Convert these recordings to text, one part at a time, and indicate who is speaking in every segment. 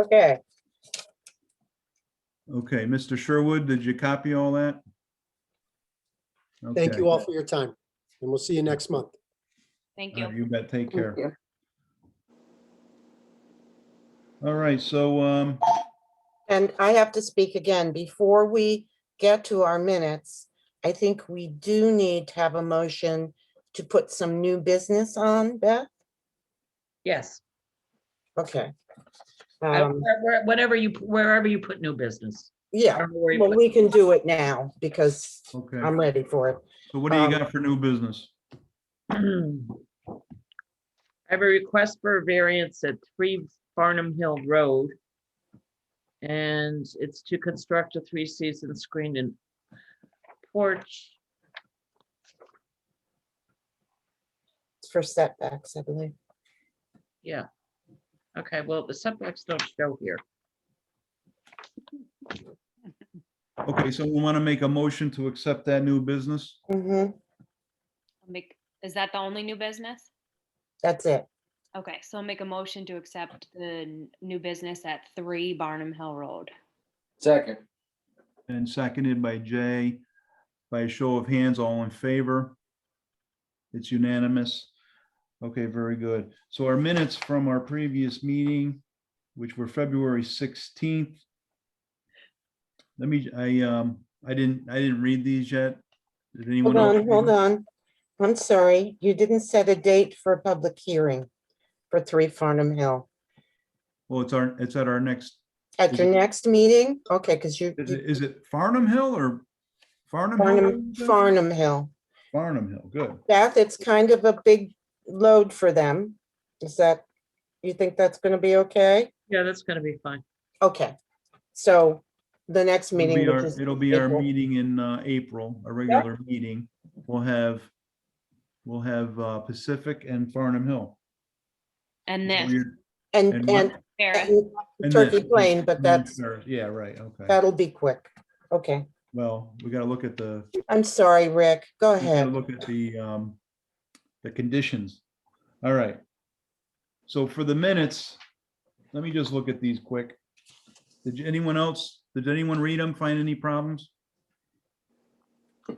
Speaker 1: Okay,
Speaker 2: Okay, Mr. Sherwood, did you copy all that?
Speaker 3: Thank
Speaker 2: Okay.
Speaker 3: you all for your time, and we'll see you next month.
Speaker 4: Thank
Speaker 2: All right,
Speaker 4: you.
Speaker 2: You bet, take care.
Speaker 5: Thank you.
Speaker 2: All right, so, um,
Speaker 1: and I have to speak again. Before we get to our minutes, I think we do need to have a motion to put some new business on, Beth?
Speaker 6: Yes,
Speaker 1: Okay.
Speaker 6: I-
Speaker 1: Um,
Speaker 6: where- where- whatever you, wherever you put new business. I
Speaker 1: Yeah,
Speaker 6: don't know where you
Speaker 1: well,
Speaker 6: put-
Speaker 1: we can do it now because
Speaker 2: okay,
Speaker 1: I'm ready for it.
Speaker 2: so what do you
Speaker 1: um,
Speaker 2: got for new business?
Speaker 6: I have a request for a variance at three Farnham Hill Road. And it's to construct a three-season screened in porch.
Speaker 1: It's for setbacks, I believe.
Speaker 6: Yeah. Okay, well, the setbacks don't show here.
Speaker 2: Okay, so we want to make a motion to accept that new business?
Speaker 1: Mhm,
Speaker 4: I'll Make, is that the only new business?
Speaker 1: That's it.
Speaker 4: Okay, so I'll make a motion to accept the n- new business at three Barnum Hill Road.
Speaker 7: Second,
Speaker 2: And seconded by Jay. By a show of hands, all in favor? It's unanimous. Okay, very good. So our minutes from our previous meeting, which were February sixteenth. Let me, I, um, I didn't, I didn't read these yet. Did anyone
Speaker 1: Hold
Speaker 2: else?
Speaker 1: on, hold on. I'm sorry, you didn't set a date for a public hearing for Three Farnham Hill.
Speaker 2: Well, Oh, it's our, it's at our next,
Speaker 1: At
Speaker 2: Is
Speaker 1: your
Speaker 2: it-
Speaker 1: next meeting? Okay, because you,
Speaker 2: is
Speaker 1: you-
Speaker 2: it- is it Farnham Hill or? Farnham?
Speaker 1: Farnham,
Speaker 2: Hill?
Speaker 1: Farnham Hill.
Speaker 2: Farnham Hill, good.
Speaker 1: Beth, it's kind of a big load for them. Is that, you think that's going to be okay?
Speaker 6: Yeah, that's gonna be fine.
Speaker 1: Okay, so the next
Speaker 2: It'll
Speaker 1: meeting,
Speaker 2: be
Speaker 1: which
Speaker 2: our,
Speaker 1: is,
Speaker 2: it'll be our
Speaker 1: April.
Speaker 2: meeting in uh, April, a regular meeting. We'll have, we'll have uh, Pacific and Farnham Hill.
Speaker 4: And this,
Speaker 2: Weird-
Speaker 1: and,
Speaker 2: and what-
Speaker 1: and
Speaker 4: Sarah,
Speaker 1: and
Speaker 2: and
Speaker 1: Turkey
Speaker 2: this.
Speaker 1: Plain, but that's,
Speaker 2: Yeah, right, okay.
Speaker 1: that'll be quick. Okay,
Speaker 2: Well, we gotta look at the, we
Speaker 1: I'm sorry, Rick, go
Speaker 2: gotta
Speaker 1: ahead.
Speaker 2: look at the, um, the conditions. All right. So for the minutes, let me just look at these quick. Did you- anyone else, did anyone read them, find any problems?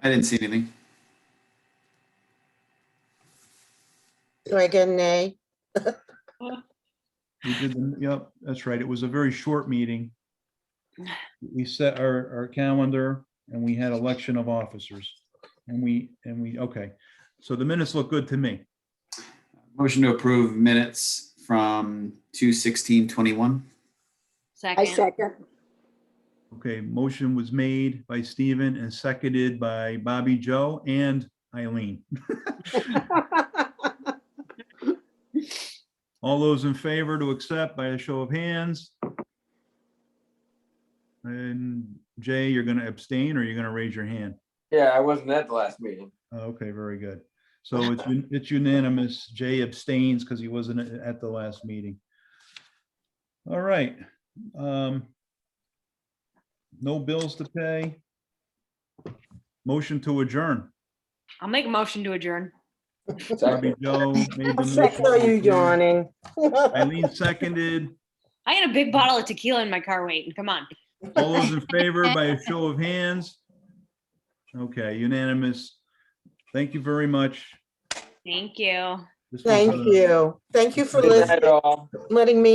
Speaker 7: I didn't see anything.
Speaker 1: Do I get an A?
Speaker 2: We did, the- yep, that's right. It was a very short meeting. We set our, our calendar and we had election of officers. And we, and we, okay, so the minutes look good to me.
Speaker 7: Motion to approve minutes from two sixteen twenty-one.
Speaker 5: I
Speaker 4: second,
Speaker 5: second.
Speaker 2: Okay, motion was made by Stephen and seconded by Bobby Joe and Eileen. All those in favor to accept by a show of hands? And Jay, you're gonna abstain or you're gonna raise your hand?
Speaker 7: Yeah, I wasn't at the last meeting.
Speaker 2: Okay, very good. So it's un- it's unanimous. Jay abstains because he wasn't a- at the last meeting. All right. um, No bills to pay. Motion to adjourn.
Speaker 4: I'll make a motion to adjourn.
Speaker 7: Second.
Speaker 2: Bobby Joe made
Speaker 1: I
Speaker 2: the
Speaker 1: saw you
Speaker 2: motion.
Speaker 1: yawning.
Speaker 2: Eileen seconded.
Speaker 4: I had a big bottle of tequila in my car waiting, come on.
Speaker 2: All those in favor by a show of hands? Okay, unanimous. Thank you very much.
Speaker 4: Thank you.
Speaker 2: This was,
Speaker 1: Thank
Speaker 2: uh,
Speaker 1: you. Thank you for
Speaker 7: Good night,
Speaker 1: listening,
Speaker 7: all.
Speaker 1: letting me